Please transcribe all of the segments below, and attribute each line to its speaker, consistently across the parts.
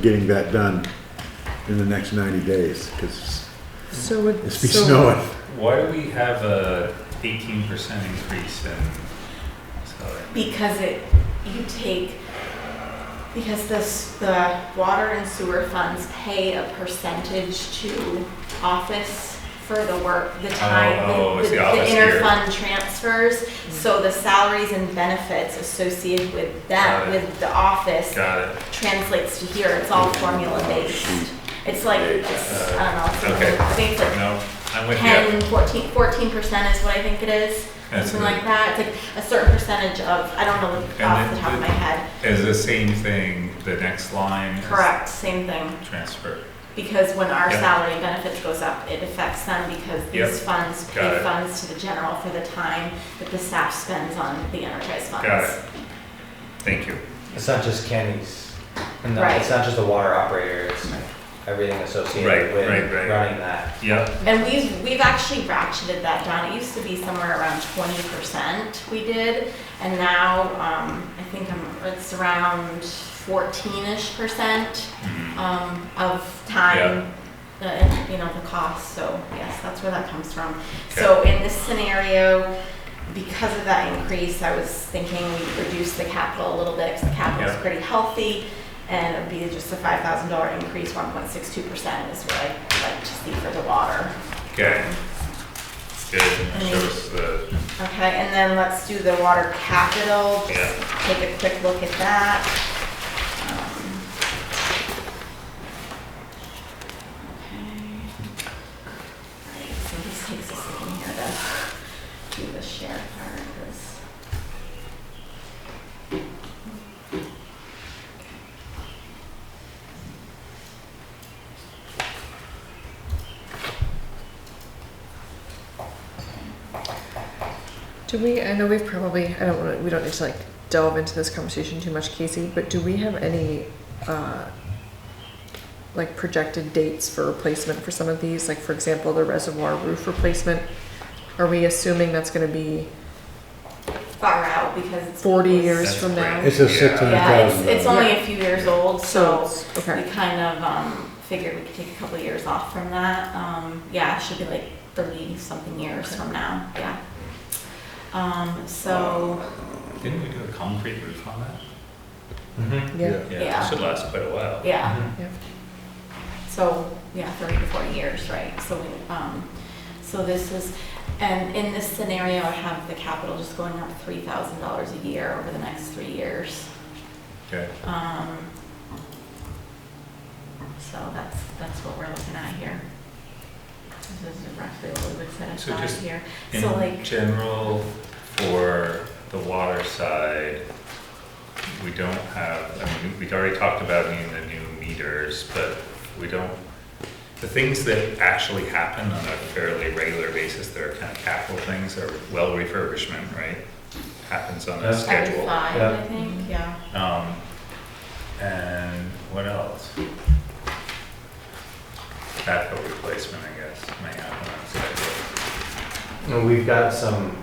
Speaker 1: getting that done in the next ninety days, because
Speaker 2: So would,
Speaker 1: it's be
Speaker 2: so,
Speaker 1: snowing.
Speaker 3: Why do we have a eighteen percent increase in salary?
Speaker 4: Because it, you take, because this, the water and sewer funds pay a percentage to office for the work, the time,
Speaker 3: oh,
Speaker 4: the-
Speaker 3: it's
Speaker 4: the
Speaker 3: the office here.
Speaker 4: interfund transfers. So the salaries and benefits associated with
Speaker 3: Got
Speaker 4: that,
Speaker 3: it.
Speaker 4: with the office
Speaker 3: Got it.
Speaker 4: translates to here, it's all formula based. It's like, it's, I don't know,
Speaker 3: Uh, Okay.
Speaker 4: it's- I think it's like
Speaker 3: No, I'm with you.
Speaker 4: 10, 14, percent is what I think it is,
Speaker 3: That's
Speaker 4: something
Speaker 3: good.
Speaker 4: like that. It's like a certain percentage of, I don't know
Speaker 3: And
Speaker 4: off
Speaker 3: then
Speaker 4: the top of
Speaker 3: the-
Speaker 4: my head.
Speaker 3: Is the same thing, the next line? is
Speaker 4: Correct, same thing.
Speaker 3: Transfer.
Speaker 4: Because when our
Speaker 3: Yeah.
Speaker 4: salary benefits goes up, it affects them because
Speaker 3: Yep.
Speaker 4: these funds
Speaker 3: Got
Speaker 4: pay
Speaker 3: it.
Speaker 4: funds to the general for the time that the staff spends on the enterprise funds.
Speaker 3: Got it. Thank you.
Speaker 5: It's not just Kenny's, and not- it's
Speaker 4: Right.
Speaker 5: not just the water operator, it's everything associated
Speaker 3: Right,
Speaker 5: with
Speaker 3: right, right.
Speaker 5: running that.
Speaker 3: Yep,
Speaker 4: And we've, we've actually ratcheted that down. It used to be somewhere around twenty percent we did. And now, um, I think I'm, it's around fourteen-ish percent,
Speaker 3: Mm-hmm.
Speaker 4: um, of time. The, and, you know, the cost, so yes, that's where that comes from. So in this scenario, because of that increase, I was thinking we reduce the capital a little bit, because the capital's
Speaker 3: Yeah.
Speaker 4: pretty healthy. And it'd be just a five thousand dollar increase, one point six two percent is what I'd like to see for the water.
Speaker 3: okay. Good, that shows the,
Speaker 4: Okay, and then let's do the water capital,
Speaker 3: Yeah.
Speaker 4: just take a quick look at that. Um, okay. Alright, so this takes a second here to do the share part, 'cause-
Speaker 2: do we, I know we've probably, I don't wanna, we don't need to like delve into this conversation too much, Casey, but do we have any, uh, like projected dates for replacement for some of these? Like, for example, the reservoir roof replacement, are we assuming that's gonna be
Speaker 4: far out because it's.
Speaker 2: forty
Speaker 4: it's-
Speaker 2: years
Speaker 3: That's
Speaker 2: from now?
Speaker 3: great.
Speaker 1: It's a
Speaker 3: Yeah.
Speaker 1: six hundred
Speaker 4: Yeah, it's,
Speaker 1: thousand
Speaker 4: it's
Speaker 1: dollars.
Speaker 4: only a few years old,
Speaker 2: So,
Speaker 4: so
Speaker 2: it's-
Speaker 4: we
Speaker 2: okay,
Speaker 4: kind of, um, figured we could take a couple of years off from that. Um, yeah, it should be like thirty something years from now, yeah. Um, so,
Speaker 3: didn't we do a concrete roof on that?
Speaker 5: Mhm.
Speaker 2: yeah,
Speaker 4: Yeah.
Speaker 3: It should last quite a while.
Speaker 4: yeah,
Speaker 5: Mm-hmm.
Speaker 2: yeah.
Speaker 4: so, yeah, thirty to forty years, right? So we, um, so this is, and in this scenario, I have the capital just going up three thousand dollars a year over the next three years.
Speaker 3: Okay,
Speaker 4: Um, so that's, that's what we're looking at here. This is roughly what we would set
Speaker 3: So
Speaker 4: aside
Speaker 3: just
Speaker 4: here. So
Speaker 3: in
Speaker 4: like,
Speaker 3: general, for the water side, we don't have, I mean, we'd already talked about needing the new meters, but we don't, the things that actually happen on a fairly regular basis, that are kind of capital things, are well refurbishment, right? Happens on a
Speaker 5: Yeah.
Speaker 4: every
Speaker 3: schedule.
Speaker 4: five,
Speaker 5: Yeah.
Speaker 4: I think, yeah.
Speaker 3: Um, and what else? Capital replacement, I guess, may happen on a schedule.
Speaker 5: And we've got some,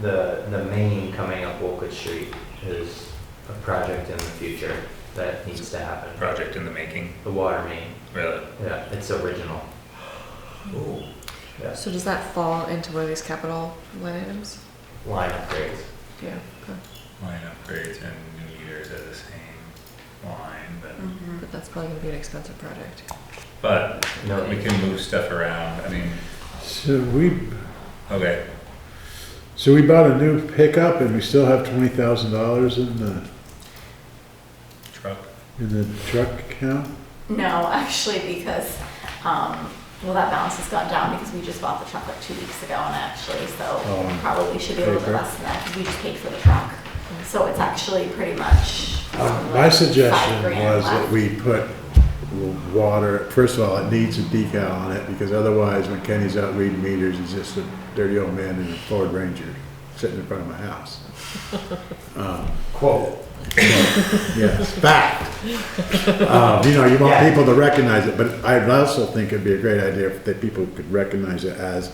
Speaker 5: the, the main coming up Wolcott Street is a project in the future that needs to happen.
Speaker 3: Project in the making,
Speaker 5: The water main,
Speaker 3: really?
Speaker 5: yeah, it's original.
Speaker 3: Ooh.
Speaker 5: Yes.
Speaker 2: So does that fall into one of these capital line items?
Speaker 5: Line upgrades.
Speaker 2: Yeah, okay,
Speaker 3: line upgrades and new meters are the same line, but,
Speaker 4: Mhm.
Speaker 2: but that's probably gonna be an expensive project.
Speaker 3: but
Speaker 5: No,
Speaker 3: we can move stuff around, I mean,
Speaker 1: So we,
Speaker 3: okay,
Speaker 1: so we bought a new pickup and we still have twenty thousand dollars in the,
Speaker 3: truck.
Speaker 1: in the truck account?
Speaker 4: No, actually, because, um, well, that balance has gone down because we just bought the truck like two weeks ago and actually, so
Speaker 1: Oh,
Speaker 4: probably should be a little bit
Speaker 1: paper.
Speaker 4: less than that because we just paid for the truck. So it's actually pretty much.
Speaker 1: Um,
Speaker 4: um,
Speaker 1: My
Speaker 4: like
Speaker 1: suggestion
Speaker 4: five grand
Speaker 1: was that
Speaker 4: left.
Speaker 1: we put water, first of all, it needs a decal on it, because otherwise, when Kenny's out reading meters, he's just a dirty old man in a Ford Ranger, sitting in front of my house. Um,
Speaker 5: Quote.
Speaker 1: Yes, fact. Um, You know, you want
Speaker 5: Yeah.
Speaker 1: people to recognize it, but I also think it'd be a great idea if that people could recognize it as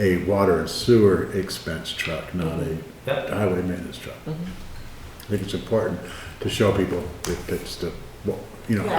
Speaker 1: a water and sewer expense truck, not a
Speaker 5: Yep.
Speaker 1: highway maintenance truck. I think it's important to show people that it's the, well, you know,
Speaker 4: Yeah.